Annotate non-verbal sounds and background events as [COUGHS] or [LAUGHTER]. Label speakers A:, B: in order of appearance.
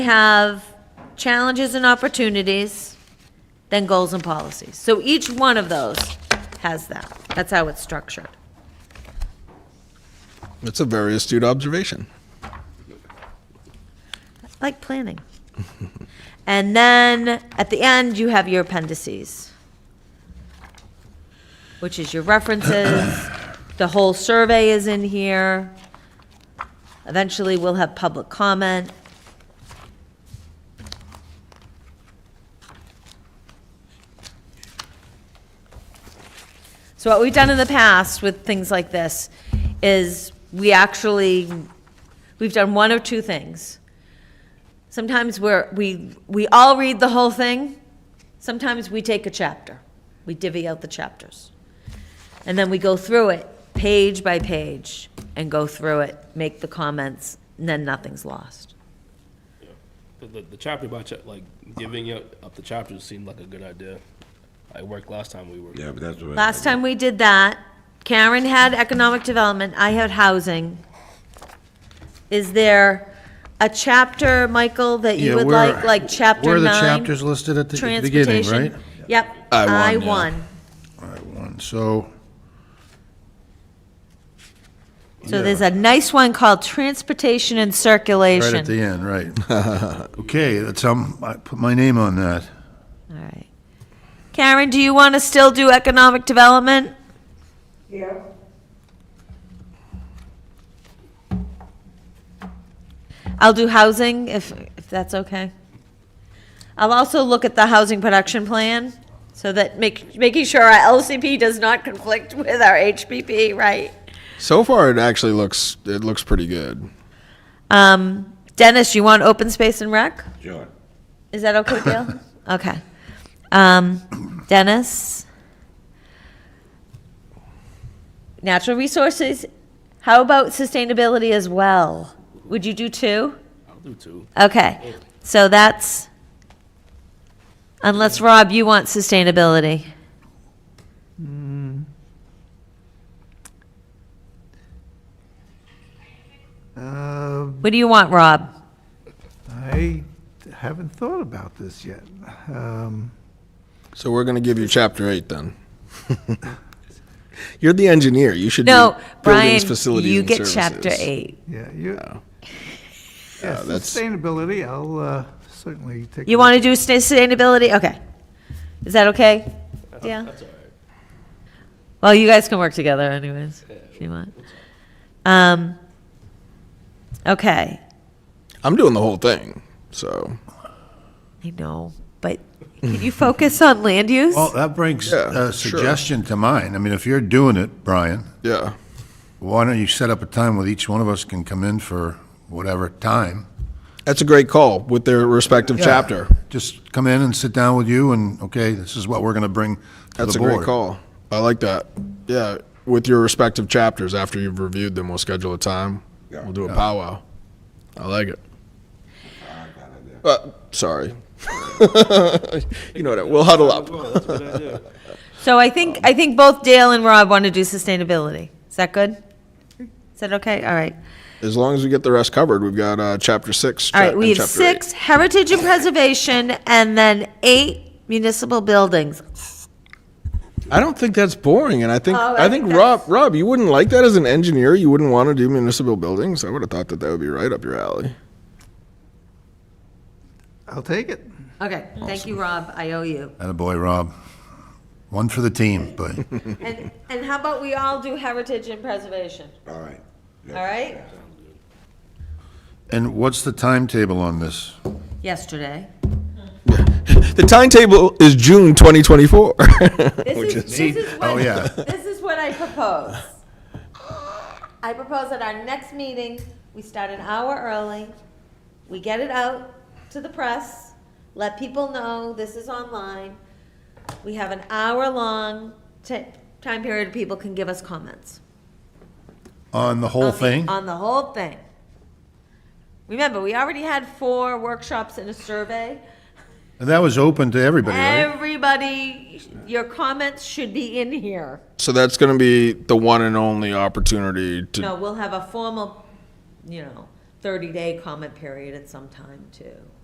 A: have challenges and opportunities, then goals and policies. So each one of those has that. That's how it's structured.
B: That's a very astute observation.
A: like planning. and then at the end, you have your appendices, which is your references. [COUGHS] the whole survey is in here. Eventually, we'll have public comment. So what we've done in the past with things like this is we actually, we've done one of two things. Sometimes we're, we, we all read the whole thing. Sometimes we take a chapter. We divvy out the chapters. And then we go through it, page by page, and go through it, make the comments, and then nothing's lost.
C: The, the, the chapter by chapter, like giving up, up the chapters seemed like a good idea. It worked last time we were.
D: Yeah, but that's what.
A: Last time we did that, Karen had economic development, I had housing. Is there a chapter, Michael, that you
E: Yeah,
A: would
E: where-
A: like, like chapter nine?
E: Where are the chapters listed at the beginning, right?
A: Transportation. Yep,
B: I won,
A: I
B: yeah.
A: won.
E: Right, one, so,
A: So there's a nice one called Transportation and
E: right at
A: Circulation.
E: the end, right.
B: [LAUGHS]
E: Okay, that's, um, I put my name on that.
A: All right. Karen, do you want to still do economic development?
F: Yeah,
A: I'll do housing if, if that's okay. I'll also look at the housing production plan so that make, making sure our LCP does not conflict with our HPP, right?
B: So far, it actually looks it looks pretty good.
A: Um, Dennis, you want open space and rec?
D: Sure.
A: Is that okay, Dale?
B: [COUGHS]
A: Okay. Um, Dennis? Natural resources, how about sustainability as well? Would you do two?
C: I'll do two.
A: Okay, so that's, unless, Rob, you want sustainability.
G: Uh,
A: What do you want, Rob?
G: I haven't thought about this yet. Um,
B: So we're gonna give you chapter eight then. [LAUGHS] You're the engineer. You should
A: No,
B: do
A: Brian,
B: buildings, facilities,
A: you
B: and
A: get chapter
B: services.
A: eight.
G: Yeah, you, yeah,
B: Oh. Uh, that's-
G: sustainability, I'll uh, certainly take.
A: You want to do sustainability? Okay. Is that okay? Yeah?
C: That's all right.
A: Well, you guys can work together anyways, if you want. Um, okay,
B: I'm doing the whole thing. So
A: I know, but can you focus on land use?
E: Well, Oh, that brings
B: Yeah, sure.
E: a suggestion to mind. I mean, if you're doing it, Brian,
B: yeah,
E: why don't you set up a time where each one of us can come in for whatever time?
B: that's a great call with their respective chapter.
E: Just come in and sit down with you and, okay, this is what we're going to bring to the board.
B: That's a great call. I like that. Yeah, with your respective chapters after you've reviewed them, we'll schedule a time.
D: Yeah.
B: We'll do a powwow. I like it. Uh, sorry. [LAUGHS] you know what? I- We'll huddle up.
C: Well, that's a good idea.
A: So I think, I think both Dale and Rob want to do sustainability. Is that good? Is that okay? All right.
B: As long as we get the rest covered, we've got uh, chapter six.
A: All right,
B: chap-
A: we
B: and
A: have
B: chapter eight.
A: six, heritage and preservation, and then eight municipal buildings.
B: I don't think that's boring, and I think
A: Oh, I
B: I, think,
A: think
B: Rob
A: that's-
B: Rob, you wouldn't like that as an engineer. You wouldn't want to do municipal buildings. I would have thought that that would be right up your alley.
G: I'll take it.
A: Okay, thank you, Rob, I owe you.
E: boy, Rob. One for the team,
B: [LAUGHS]
E: but
A: And, and how about we all do heritage and preservation,
D: All right.
A: all right?
E: And what's the timetable on this?
A: Yesterday.
B: [LAUGHS] The timetable is June [LAUGHS] 2024.
A: This is, this is
E: Oh,
A: what-
E: yeah.
A: This is what I propose. I propose at our next meeting, we start an hour early, we get it out to the press, let people know this is online. We have an hour-long ti- time period, people can give us comments.
E: On the whole
A: on the-
E: thing?
A: On the whole thing. Remember, we already had four workshops and a survey.
E: And that was open to everybody, right?
A: Everybody, your comments should be in here.
B: so that's going to be the one and only opportunity to.
A: No, we'll have a formal, you know, thirty-day comment period at some time too.